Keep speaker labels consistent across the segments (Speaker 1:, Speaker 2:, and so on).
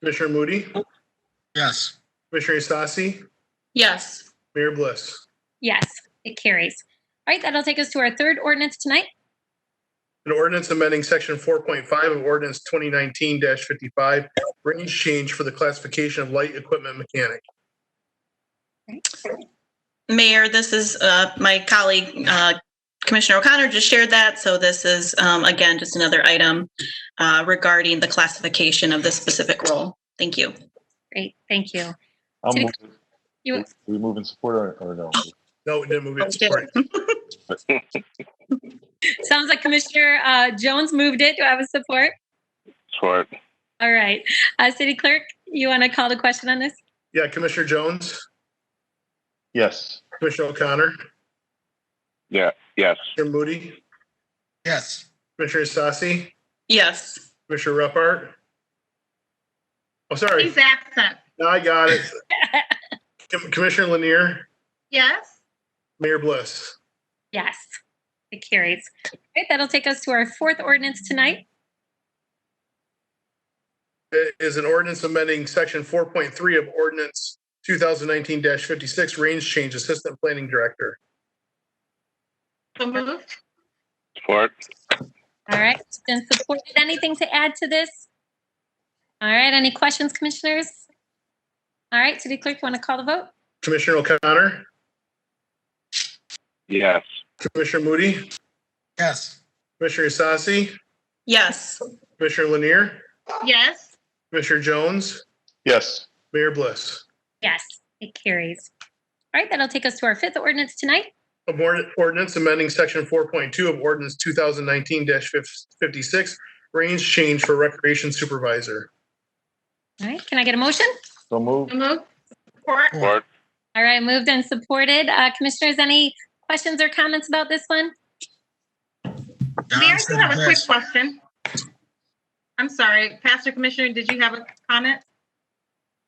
Speaker 1: Commissioner Moody,
Speaker 2: Yes.
Speaker 1: Commissioner Sassi,
Speaker 3: Yes.
Speaker 1: Mayor Bliss.
Speaker 4: Yes, it carries. All right, that'll take us to our third ordinance tonight.
Speaker 1: An ordinance amending section four point five of ordinance twenty nineteen fifty-five, range change for the classification of light equipment mechanic.
Speaker 3: Mayor, this is uh, my colleague, uh, Commissioner O'Connor just shared that. So this is, um, again, just another item uh, regarding the classification of this specific role. Thank you.
Speaker 4: Great, thank you.
Speaker 5: I'll
Speaker 4: Take-
Speaker 5: move it.
Speaker 4: you-
Speaker 5: We move in support or, or no?
Speaker 1: No, we didn't move it. Support.
Speaker 4: Sounds like Commissioner uh, Jones moved it. Do I have a support?
Speaker 5: Support.
Speaker 4: All right. Uh, City Clerk, you want to call the question on this?
Speaker 1: Yeah, Commissioner Jones,
Speaker 5: Yes.
Speaker 1: Commissioner O'Connor,
Speaker 5: Yes.
Speaker 1: Commissioner Moody,
Speaker 2: Yes.
Speaker 1: Commissioner Sassi,
Speaker 3: Yes.
Speaker 1: Commissioner Repart. Oh, sorry.
Speaker 6: He's absent.
Speaker 1: Now I got it. Com- Commissioner Lanier,
Speaker 6: Yes?
Speaker 1: Mayor Bliss.
Speaker 4: Yes, it carries. All right, that'll take us to our fourth ordinance tonight.
Speaker 1: It is an ordinance amending section four point three of ordinance two thousand nineteen fifty-six, range change assistant planning director.
Speaker 6: So moved?
Speaker 5: Support.
Speaker 4: All right, it's been supported. Anything to add to this? All right, any questions, commissioners? All right, City Clerk, you want to call the vote?
Speaker 1: Commissioner O'Connor,
Speaker 5: Yes.
Speaker 1: Commissioner Moody,
Speaker 2: Yes.
Speaker 1: Commissioner Sassi,
Speaker 3: Yes.
Speaker 1: Commissioner Lanier,
Speaker 6: Yes?
Speaker 1: Commissioner Jones,
Speaker 5: Yes.
Speaker 1: Mayor Bliss.
Speaker 4: Yes, it carries. All right, that'll take us to our fifth ordinance tonight.
Speaker 1: Of ord- Ordinance amending section four point two of ordinance two thousand nineteen fifty-six, range change for recreation supervisor.
Speaker 4: All right, can I get a motion?
Speaker 5: So move.
Speaker 6: So moved? Support?
Speaker 2: Support.
Speaker 4: All right, moved and supported. Uh, commissioners, any questions or comments about this one?
Speaker 6: Mayor, I do
Speaker 2: Johnson,
Speaker 6: have a quick
Speaker 2: yes.
Speaker 6: question. I'm sorry, Pastor Commissioner, did you have a comment?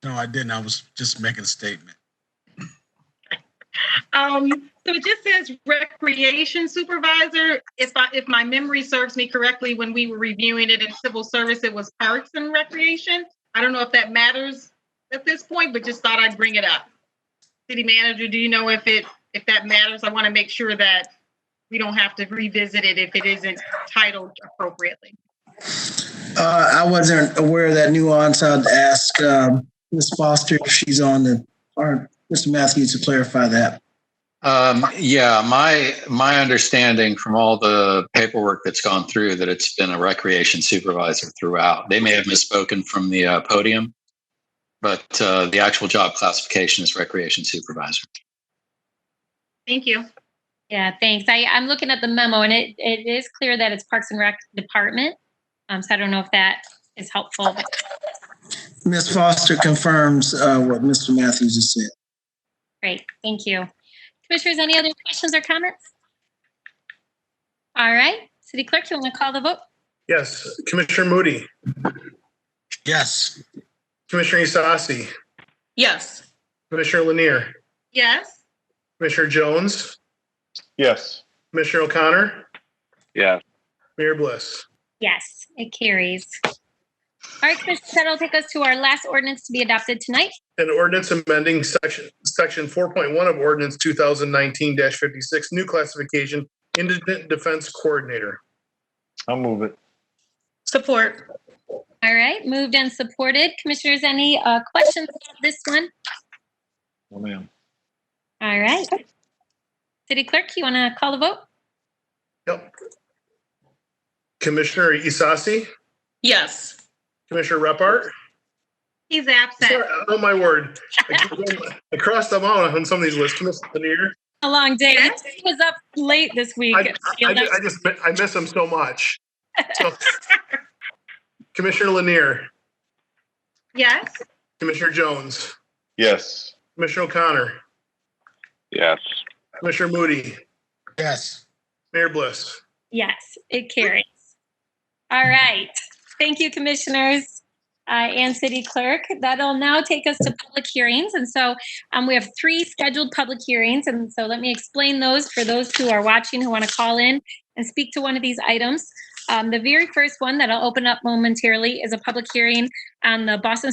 Speaker 2: No, I didn't. I was just making a statement.
Speaker 6: Um, so it just says recreation supervisor. If I, if my memory serves me correctly, when we were reviewing it in civil service, it was parks and recreation. I don't know if that matters at this point, but just thought I'd bring it up. City manager, do you know if it, if that matters? I want to make sure that we don't have to revisit it if it isn't titled appropriately.
Speaker 7: Uh, I wasn't aware of that nuance. I'd ask um, Ms. Foster if she's on the, or Mr. Matthews to clarify that.
Speaker 8: Um, yeah, my, my understanding from all the paperwork that's gone through that it's been a recreation supervisor throughout. They may have misspoken from the uh, podium, but uh, the actual job classification is recreation supervisor.
Speaker 6: Thank you.
Speaker 4: Yeah, thanks. I, I'm looking at the memo and it, it is clear that it's Parks and Rec Department. Um, so I don't know if that is helpful.
Speaker 7: Ms. Foster confirms uh, what Mr. Matthews has said.
Speaker 4: Great, thank you. Commissioners, any other questions or comments? All right, City Clerk, you want to call the vote?
Speaker 1: Yes, Commissioner Moody,
Speaker 2: Yes.
Speaker 1: Commissioner Isasi,
Speaker 3: Yes.
Speaker 1: Commissioner Lanier,
Speaker 6: Yes?
Speaker 1: Commissioner Jones,
Speaker 5: Yes.
Speaker 1: Commissioner O'Connor,
Speaker 5: Yes.
Speaker 1: Mayor Bliss.
Speaker 4: Yes, it carries. All right, Commissioners, that'll take us to our last ordinance to be adopted tonight.
Speaker 1: An ordinance amending section, section four point one of ordinance two thousand nineteen fifty-six, new classification, indigent defense coordinator.
Speaker 5: I'll move it.
Speaker 3: Support.
Speaker 4: All right, moved and supported. Commissioners, any uh, questions about this one?
Speaker 5: Oh, man.
Speaker 4: All right. City Clerk, you want to call the vote?
Speaker 1: Yep. Commissioner Isasi,
Speaker 3: Yes.
Speaker 1: Commissioner Repart.
Speaker 6: He's
Speaker 1: Sorry,
Speaker 6: absent.
Speaker 1: oh my word. I keep going- I crossed them out on some of these lists. Commissioner Lanier,
Speaker 4: A long day.
Speaker 6: Yes.
Speaker 4: He was up late this week.
Speaker 1: I, I, I ju- I just, mi- I miss them so much. So- Commissioner Lanier,
Speaker 6: Yes?
Speaker 1: Commissioner Jones,
Speaker 5: Yes.
Speaker 1: Commissioner O'Connor,
Speaker 5: Yes.
Speaker 1: Commissioner Moody,
Speaker 2: Yes.
Speaker 1: Mayor Bliss.
Speaker 4: Yes, it carries. All right. Thank you, Commissioners uh, and City Clerk. That'll now take us to public hearings. And so um, we have three scheduled public hearings. And so let me explain those for those who are watching who want to call in and speak to one of these items. Um, The very first one that I'll open up momentarily is a public hearing on the Boston School